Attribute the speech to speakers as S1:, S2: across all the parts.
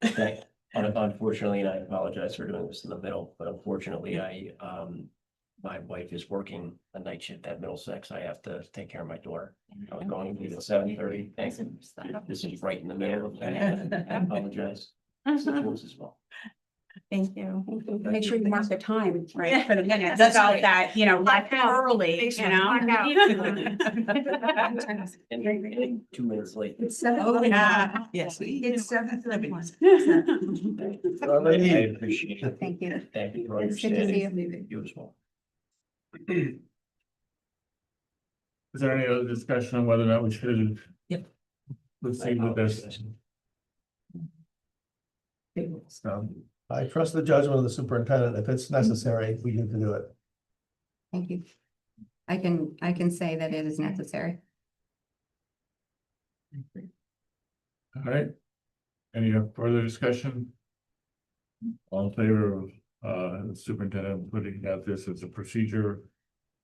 S1: that un- Unfortunately, and I apologize for doing this in the middle, but unfortunately, I, um, my wife is working a night shift at Middlesex. I have to take care of my daughter. I was going to be at seven thirty. This is right in the middle of that. I apologize. It's the rules as well.
S2: Thank you.
S3: Make sure you mark the time, right? For the minutes,
S2: That's
S3: about
S2: right.
S3: that, you know,
S2: Clock
S3: like
S2: out.
S3: early, you know?
S1: And and two minutes late.
S4: It's seven.
S2: Oh, yeah.
S4: Yes. It's seven thirty.
S1: I appreciate it.
S2: Thank you.
S1: Thank you for
S2: It's good to see
S1: understanding.
S2: you.
S1: You as well.
S5: Is there any other discussion on whether or not we should?
S1: Yep.
S5: Proceed with this, so.
S6: I trust the judgment of the superintendent. If it's necessary, we need to do it.
S2: Thank you. I can, I can say that it is necessary.
S5: All right. Any further discussion? All in favor of uh the superintendent putting out this as a procedure,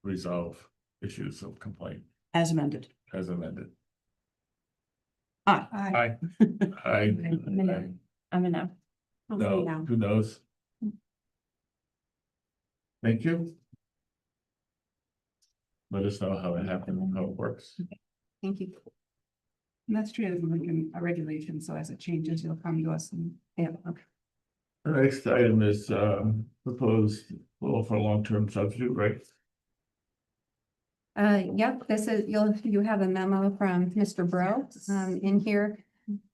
S5: resolve issues of complaint
S4: As amended.
S5: as amended.
S4: Aye.
S5: Aye. Aye. Aye.
S4: I'm enough.
S5: No, who knows? Thank you. Let us know how it happened, and how it works.
S2: Thank you.
S3: That's true, it's like in a regulation, so as it changes, you'll come to us and. Yeah, okay.
S5: The next item is um proposed law for long-term substitute, right?
S2: Uh, yep, this is, you'll, you have a memo from Mr. Bro, um, in here.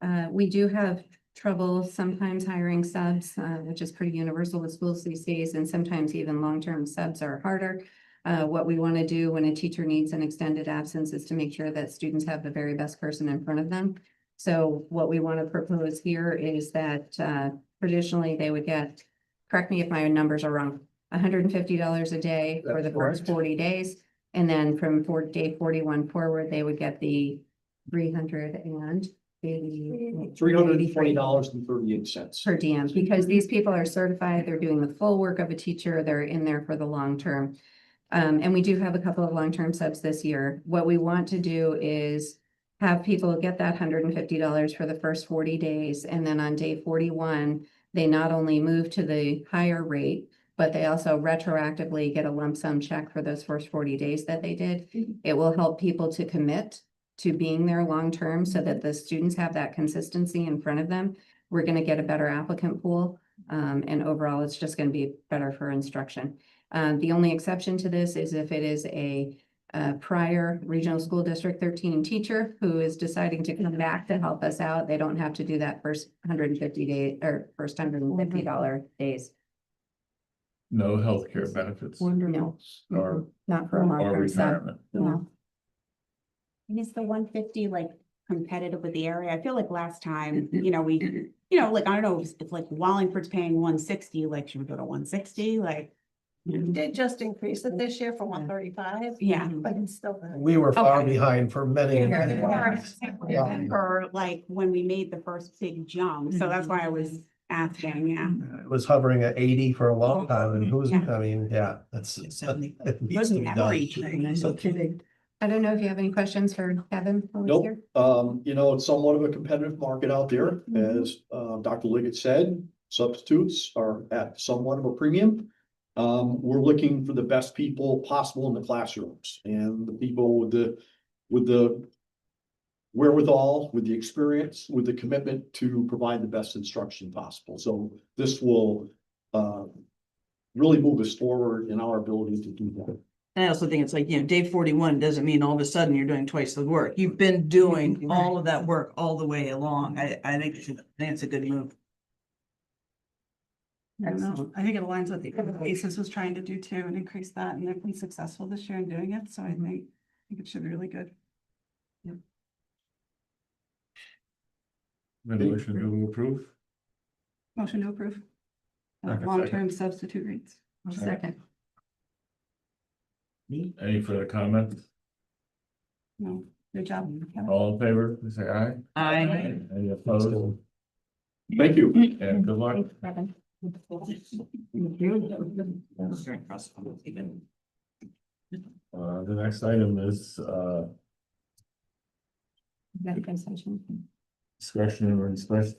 S2: Uh, we do have trouble sometimes hiring subs, uh, which is pretty universal with schools these days, and sometimes even long-term subs are harder. Uh, what we want to do when a teacher needs an extended absence is to make sure that students have the very best person in front of them. So what we want to propose here is that, uh, traditionally they would get, correct me if my numbers are wrong, hundred and fifty dollars a day for the
S6: That's
S2: first
S6: correct.
S2: forty days. And then from for day forty-one forward, they would get the three hundred and eighty.
S7: Three hundred and twenty dollars and thirty-eight cents.
S2: Per diem, because these people are certified, they're doing the full work of a teacher, they're in there for the long term. Um, and we do have a couple of long-term subs this year. What we want to do is have people get that hundred and fifty dollars for the first forty days, and then on day forty-one, they not only move to the higher rate, but they also retroactively get a lump sum check for those first forty days that they did. It will help people to commit to being there long-term so that the students have that consistency in front of them we're gonna get a better applicant pool. um, and overall, it's just gonna be better for instruction. Um, the only exception to this is if it is a uh, prior regional school district thirteen teacher who is deciding to come back to help us out. They don't have to do that first hundred and fifty day or first hundred and fifty dollar days.
S5: No healthcare benefits
S2: No,
S5: or
S2: not for a long
S5: or
S2: term sub.
S5: retirement.
S2: No.
S3: And is the one fifty like competitive with the area? I feel like last time, you know, we, you know, like, I don't know, if if like Wallingford's paying one sixty, like, should we go to one sixty, like?
S8: Did just increase it this year from one thirty-five,
S3: Yeah.
S8: but it's still. not-
S6: We were far
S2: Okay.
S6: behind for many.
S2: Yeah.
S6: many months. Yeah.
S3: Or like when we made the first big jump, so that's why I
S4: Mm-hmm.
S3: was asking, yeah.
S6: It was hovering at eighty for a long time and who's,
S3: Yeah.
S6: I mean, yeah, that's. it needs to be done.
S4: No kidding.
S2: I don't know if you have any questions for Kevin. while he's
S7: Nope.
S2: here?
S7: Um, you know, it's somewhat of a competitive market out there, as uh Dr. Liggett said, substitutes are at somewhat of a premium. Um, we're looking for the best people possible in the classrooms and the people with the, with the. Wherewithal, with the experience, with the commitment to provide the best instruction possible, so this will uh. Really move us forward in our ability to do that.
S4: And I also think it's like, you know, day forty-one doesn't mean all of a sudden you're doing twice the work. You've been doing all of that work all the way along. I, I think it's a- I think it's a good move.
S8: I don't know. I think it aligns with what the ACES was trying to do too and increase that, and they've been successful this year in doing it, so I
S2: Mhm.
S8: think, I think it should be really good.
S5: Resolution to approve.
S8: Motion to approve. Uh,
S5: Second, second.
S8: Long-term substitute rates.
S2: I'll Second.
S5: Any further comments?
S8: No, good job. Kevin.
S5: All in favor, please say aye.
S4: I,
S5: Any opposed?
S7: Thank you.
S5: And good luck.
S2: Thanks, Kevin.
S5: Uh, the next item is uh
S2: You got a good session.
S5: discretion or inspection,